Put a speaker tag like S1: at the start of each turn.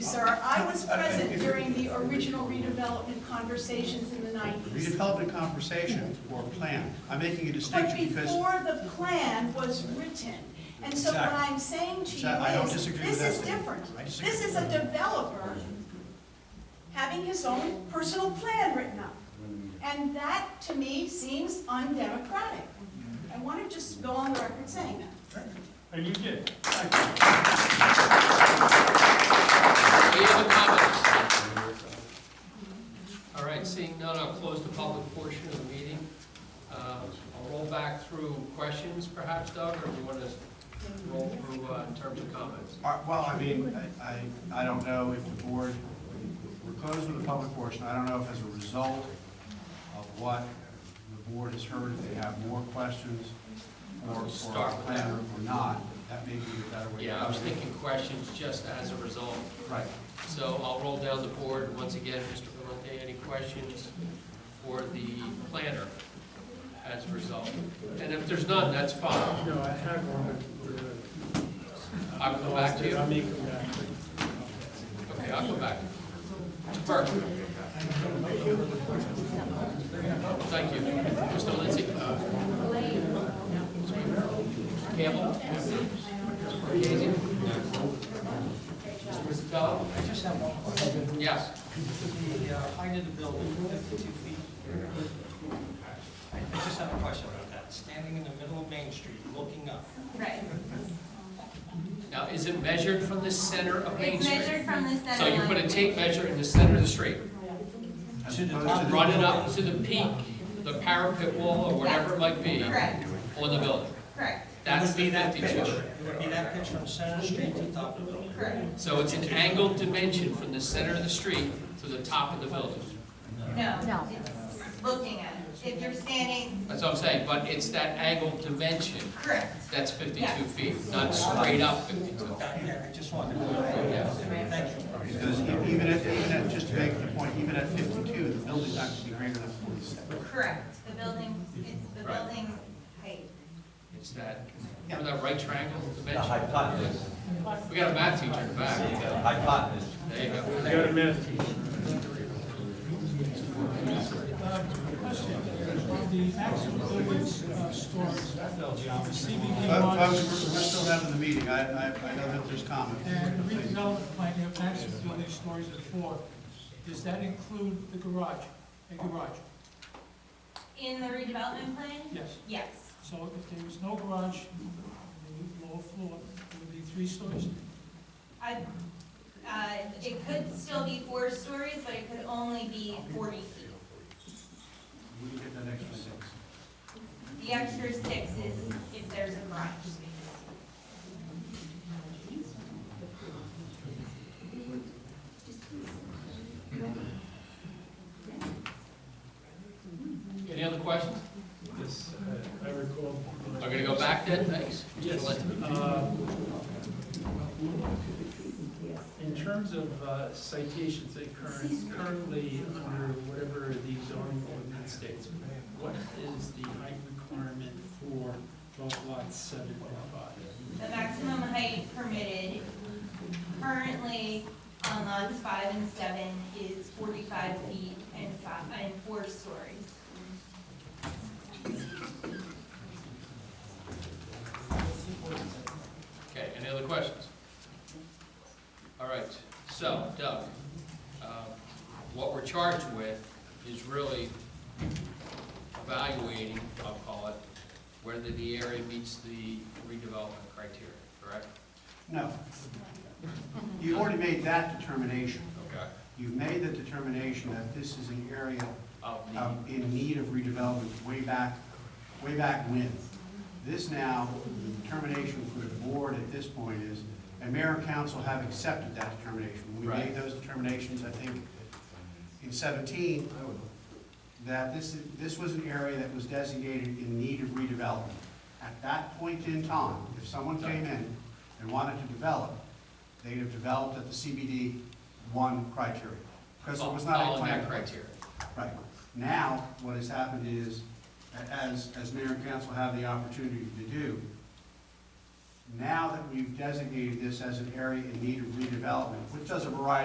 S1: Sir, I was present during the original redevelopment conversations in the 90s.
S2: Redevelopment conversation or plan, I'm making a
S1: But
S2: distinction because,
S1: before the plan was written. And so what
S2: Exactly.
S1: I'm saying to you
S2: Exactly. I don't
S1: is,
S2: disagree
S1: this
S2: with that
S1: is
S2: statement.
S1: different.
S2: I disagree.
S1: This is a developer having his own personal plan written up. And that, to me, seems undemocratic. I want to just go on the record saying that.
S3: And you did.
S4: Any other comments? All right, seeing none, I'll close the public portion of the meeting. Uh, I'll roll back through questions perhaps, Doug, or do you want to roll through uh, in terms of comments?
S2: Uh, well, I mean, I- I, I don't know if the board, we're closed with the public portion, I don't know if as a result of what the board has heard, if they have more questions or, or our
S4: Start with
S2: plan or not, that may be a better way. to
S4: Yeah, I was
S2: do it.
S4: thinking questions just as a result.
S2: Right,
S4: So I'll roll down the board. Once again, Mr. Valente, any questions for the planner as a result? And if there's none, that's fine.
S3: No, I have one. but, uh,
S4: I'll come back to you.
S3: I may come back.
S4: Okay, I'll go back. Burke. Thank you. Mr. Lindsay? uh, Campbell? Gazy? Mr. Vitello?
S5: I just have one question.
S4: Yes.
S5: The uh, height of the building, 52 feet. I I just have a question about that. Standing in the middle of Main Street, looking up.
S6: Right.
S4: Now, is it measured from the center of Main
S6: It's measured
S4: Street?
S6: from the center
S4: So
S6: line.
S4: you put a tape measure in the center of the street,
S2: as
S5: To the
S2: opposed
S5: top.
S2: to the-
S4: run it up to the peak, the parapet wall, or whatever it might be,
S6: Correct,
S4: on the building.
S6: correct,
S5: It
S4: That's
S5: would be
S4: the
S5: that pitch.
S4: 52.
S5: It would be that pitch from Center Street to the top of the building.
S6: correct.
S4: So it's an angled dimension from the center of the street to the top of the building.
S6: No. No. Looking at it. If you're standing,
S4: That's what I'm saying, but it's that angled dimension
S6: correct.
S4: that's 52
S6: Yeah.
S4: feet, not straight up 52.
S5: Yeah, I just wanted to know. Thank you.
S2: Because e- even at, even at, just to make the point, even at fifty-two, the building's not gonna be greater than forty-seven.
S6: Correct. The building, it's the
S4: Right.
S6: building height.
S4: It's that, remember that right triangle dimension? hypotenuse. We got a math teacher in the back. Hypotenuse. There you go.
S3: You got a minute.
S2: Folks, folks, we're we're still having the meeting, I, I, I know that there's comments.
S7: And the
S2: Please.
S7: redevelopment plan, you have access to building stories at four. Does that include the garage, a garage?
S6: In the redevelopment plan?
S7: Yes.
S6: Yes.
S7: So if there was no garage, on the lower floor, it would be three stories?
S6: I, uh, it could still be four stories, but it could only be forty feet.
S2: We can get that extra six.
S6: The extra six is if there's a garage space.
S4: Any other questions?
S3: Yes, uh, I recall.
S4: We're going to go back then, thanks.
S3: Yes. uh, In terms of uh, citations that current, currently under whatever the zoning ordinance states, what is the height requirement for both lots seven and five?
S6: The maximum height permitted currently on lots five and seven is forty-five feet and five, and four stories.
S4: Okay, any other questions? All right, so Doug, um, what we're charged with is really evaluating, I'll call it, whether the area meets the redevelopment criteria, correct?
S2: No. You've already made that determination.
S4: Okay.
S2: You've made the determination that this is an area
S4: Of
S2: uh,
S4: the,
S2: in need of redevelopment way back, way back when. This now, the determination for the board at this point is, and mayor and council have accepted that determination. We made
S4: Right.
S2: those determinations, I think, in seventeen, that this, is- this was an area that was designated in need of redevelopment. At that point in time, if someone came in and wanted to develop, they'd have developed at the CBD one criteria. Because it was not a
S4: following
S2: plan.
S4: that criteria.
S2: Right. Now, what has happened is, a- as, as mayor and council have the opportunity to do, Now that we've designated this as an area in need of redevelopment, which does a variety